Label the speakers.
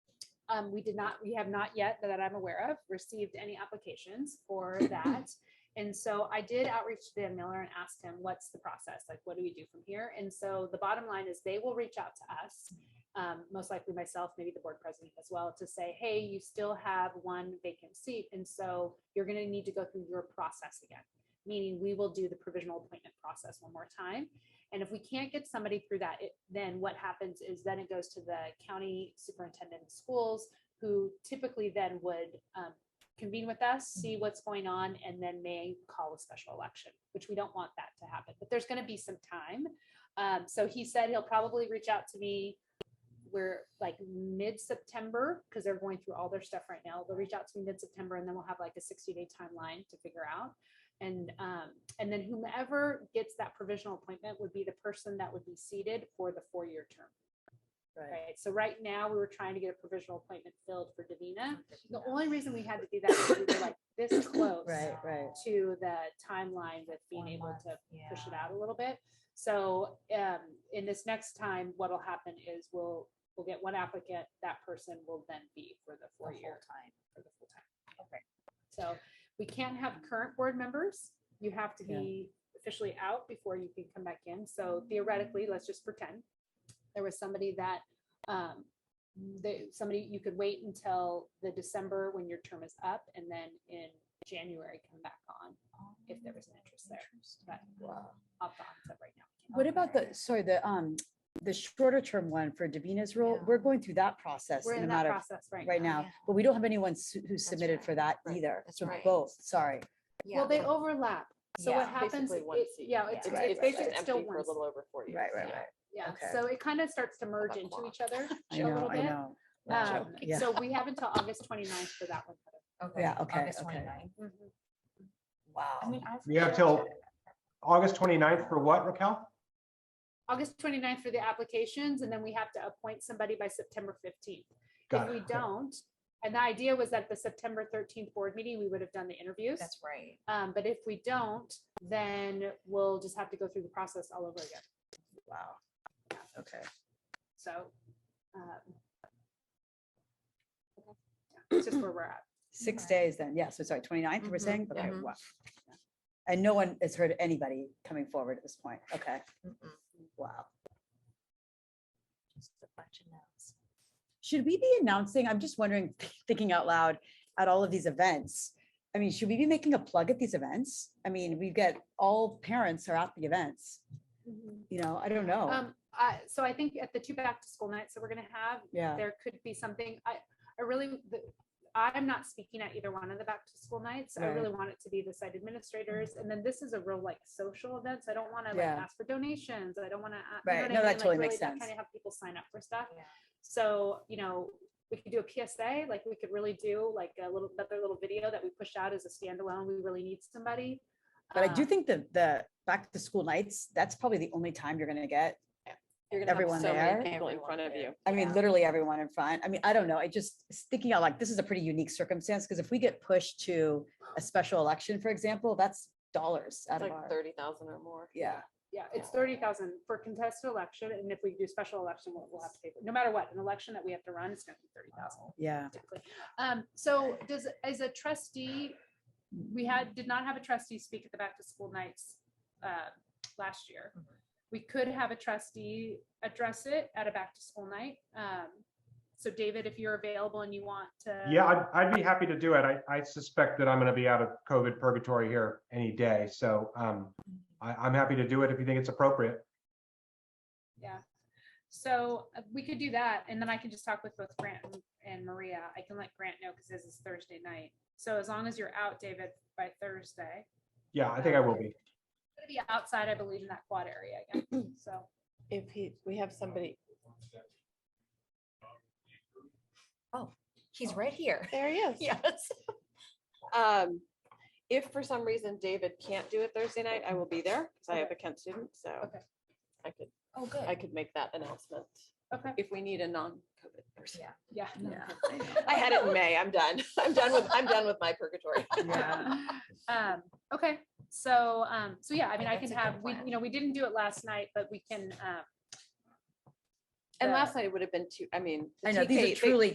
Speaker 1: Um, we did not, we have not yet, that I'm aware of, received any applications for that. And so I did outreach to Dan Miller and asked him, what's the process? Like, what do we do from here? And so the bottom line is they will reach out to us, um, most likely myself, maybe the board president as well, to say, hey, you still have one vacant seat. And so you're going to need to go through your process again, meaning we will do the provisional appointment process one more time. And if we can't get somebody through that, it- then what happens is then it goes to the county superintendent of schools, who typically then would um, convene with us, see what's going on, and then may call a special election, which we don't want that to happen. But there's going to be some time. Um, So he said he'll probably reach out to me. We're like mid-September because they're going through all their stuff right now. They'll reach out to me mid-September and then we'll have like a 60-day timeline to figure out. And, um, and then whomever gets that provisional appointment would be the person that would be seated for the four-year term. Right, so right now, we were trying to get a provisional appointment filled for Davina. The only reason we had to do that is we were like this close
Speaker 2: Right, right.
Speaker 1: to the timeline with being able to push it out a little bit. So um, in this next time, what'll happen is we'll, we'll get one applicant, that person will then be for the
Speaker 3: for
Speaker 1: four-year.
Speaker 3: time.
Speaker 1: for the full time.
Speaker 3: Okay.
Speaker 1: So we can't have current board members. You have to
Speaker 2: Yeah.
Speaker 1: be officially out before you can come back in. So theoretically, let's just pretend there was somebody that, um, they, somebody, you could wait until the December when your term is up and then in January come back on if there was an interest there. But opt on to right now.
Speaker 2: What about the, sorry, the, um, the shorter term one for Davina's role?
Speaker 3: Yeah.
Speaker 2: We're going through that process
Speaker 1: We're
Speaker 2: in a
Speaker 1: in that
Speaker 2: matter of,
Speaker 1: process right
Speaker 2: right
Speaker 1: now.
Speaker 2: now,
Speaker 3: Yeah.
Speaker 2: but we don't have anyone su- who submitted
Speaker 3: right,
Speaker 2: for that
Speaker 3: right,
Speaker 2: either.
Speaker 3: that's
Speaker 2: So
Speaker 3: right.
Speaker 2: Both, sorry.
Speaker 1: Well, they overlap. So what
Speaker 3: Yeah,
Speaker 1: happens,
Speaker 4: Basically one
Speaker 1: it-
Speaker 4: seat.
Speaker 1: yeah, it's,
Speaker 2: It's-
Speaker 1: it's
Speaker 2: basically
Speaker 1: it's
Speaker 4: empty
Speaker 1: still
Speaker 4: for
Speaker 1: one
Speaker 4: a
Speaker 1: seat.
Speaker 4: little over four years.
Speaker 3: Yeah.
Speaker 1: Yeah,
Speaker 2: Okay.
Speaker 1: so it kind of starts to merge into
Speaker 4: clock.
Speaker 1: each other
Speaker 2: I
Speaker 1: a
Speaker 2: know,
Speaker 1: little
Speaker 2: I
Speaker 1: bit.
Speaker 2: know.
Speaker 1: Um,
Speaker 2: Yeah.
Speaker 1: So we have until August 29th for that one.
Speaker 2: Yeah, okay,
Speaker 3: August
Speaker 2: okay.
Speaker 3: 29th.
Speaker 2: Mm-hmm.
Speaker 1: Mhm.
Speaker 3: Wow.
Speaker 5: We have till August 29th for what, Raquel?
Speaker 1: August 29th for the applications, and then we have to appoint somebody by September 15th. If
Speaker 5: Got
Speaker 1: we
Speaker 5: it.
Speaker 1: don't, and the idea was that the September 13th board meeting, we would have done the interviews.
Speaker 3: That's right.
Speaker 1: Um, But if we don't, then we'll just have to go through the process all over again.
Speaker 2: Wow. Okay.
Speaker 1: So. um, okay. Yeah, It's just where we're at.
Speaker 2: Six
Speaker 3: Okay.
Speaker 2: days then, yeah, so sorry, 29th we're
Speaker 1: Mm-hmm.
Speaker 3: Mhm,
Speaker 2: saying? Okay,
Speaker 3: mhm.
Speaker 2: wow. And no one has heard anybody coming forward at this point, okay,
Speaker 3: Mm-mm.
Speaker 2: wow.
Speaker 3: Just a bunch of notes.
Speaker 2: Should we be announcing, I'm just wondering, thinking out loud, at all of these events? I mean, should we be making a plug at these events? I mean, we get, all parents are at the events, you know, I don't know,
Speaker 1: Um, I, so I think at the two back to school nights that we're gonna have,
Speaker 2: yeah.
Speaker 1: there could be something, I, I really, the- I'm not speaking at either one of the back to school nights. I
Speaker 2: Right.
Speaker 1: really want it to be the site administrators. And then this is a real like social event. So I don't want to like
Speaker 2: Yeah.
Speaker 1: ask for donations. I don't uh, want to.
Speaker 2: Right. No, that totally makes sense.
Speaker 1: Kind of have people sign up for stuff.
Speaker 3: Yeah.
Speaker 1: So, you know, we could do a PSA, like we could really do like a little, another little video that we push out as a standalone. We really need somebody.
Speaker 2: But I do
Speaker 1: Um,
Speaker 2: think that the back to school nights, that's probably the only time you're gonna get,
Speaker 4: You're gonna have
Speaker 2: Everyone
Speaker 4: so many
Speaker 2: there?
Speaker 4: People in
Speaker 3: Everyone
Speaker 4: front of
Speaker 3: there.
Speaker 4: you.
Speaker 2: I mean, literally everyone in front. I mean, I don't know. I just s- thinking out like this is a pretty unique circumstance because if we get pushed to a special election, for example, that's dollars
Speaker 4: It's
Speaker 2: out of
Speaker 4: like
Speaker 2: our.
Speaker 4: thirty thousand or more.
Speaker 2: Yeah,
Speaker 1: Yeah, it's thirty thousand for contested election, and if we do special election, we'll, we'll have to pay, no matter what, an election that we have to run, it's gonna be thirty thousand.
Speaker 2: yeah.
Speaker 1: Typically, um, so does, as a trustee, we had, did not have a trustee speak at the back to school nights, uh, last year.
Speaker 3: Mhm.
Speaker 1: We could have a trustee address it at a back to school night, um, so David, if you're available and you want to.
Speaker 5: Yeah, I'd, I'd be happy to do it. I, I suspect that I'm going to be out of COVID purgatory here any day. So um, I, I'm happy to do it if you think it's appropriate.
Speaker 1: Yeah. So uh, we could do that and then I can just talk with both Grant and- and Maria. I can let Grant know because this is Thursday night. So as long as you're out, David, by Thursday,
Speaker 5: Yeah, I think I will be.
Speaker 1: it'll be outside, I believe, in that quad area again. So
Speaker 4: If he, we have somebody,
Speaker 3: He's right here.
Speaker 4: there he is.
Speaker 3: Yes.
Speaker 4: Um, if for some reason David can't do it Thursday night, I will be there because I have a Kent student, so
Speaker 1: Okay.
Speaker 4: I could,
Speaker 3: Oh,
Speaker 4: I
Speaker 3: good.
Speaker 4: could make that announcement
Speaker 1: Okay.
Speaker 4: if we need a non-COVID person.
Speaker 3: Yeah.
Speaker 1: yeah.
Speaker 4: I had it in May. I'm done. I'm done with, I'm done with my purgatory.
Speaker 1: Um, okay, so, um, so yeah, I mean, I can
Speaker 3: That's a good
Speaker 1: have, we,
Speaker 3: plan.
Speaker 1: you know, we didn't do it last night, but we can, um.
Speaker 4: And
Speaker 1: the-
Speaker 4: last night it would have been two, I mean. the
Speaker 2: I know, these
Speaker 4: TK
Speaker 2: are
Speaker 4: they-
Speaker 2: truly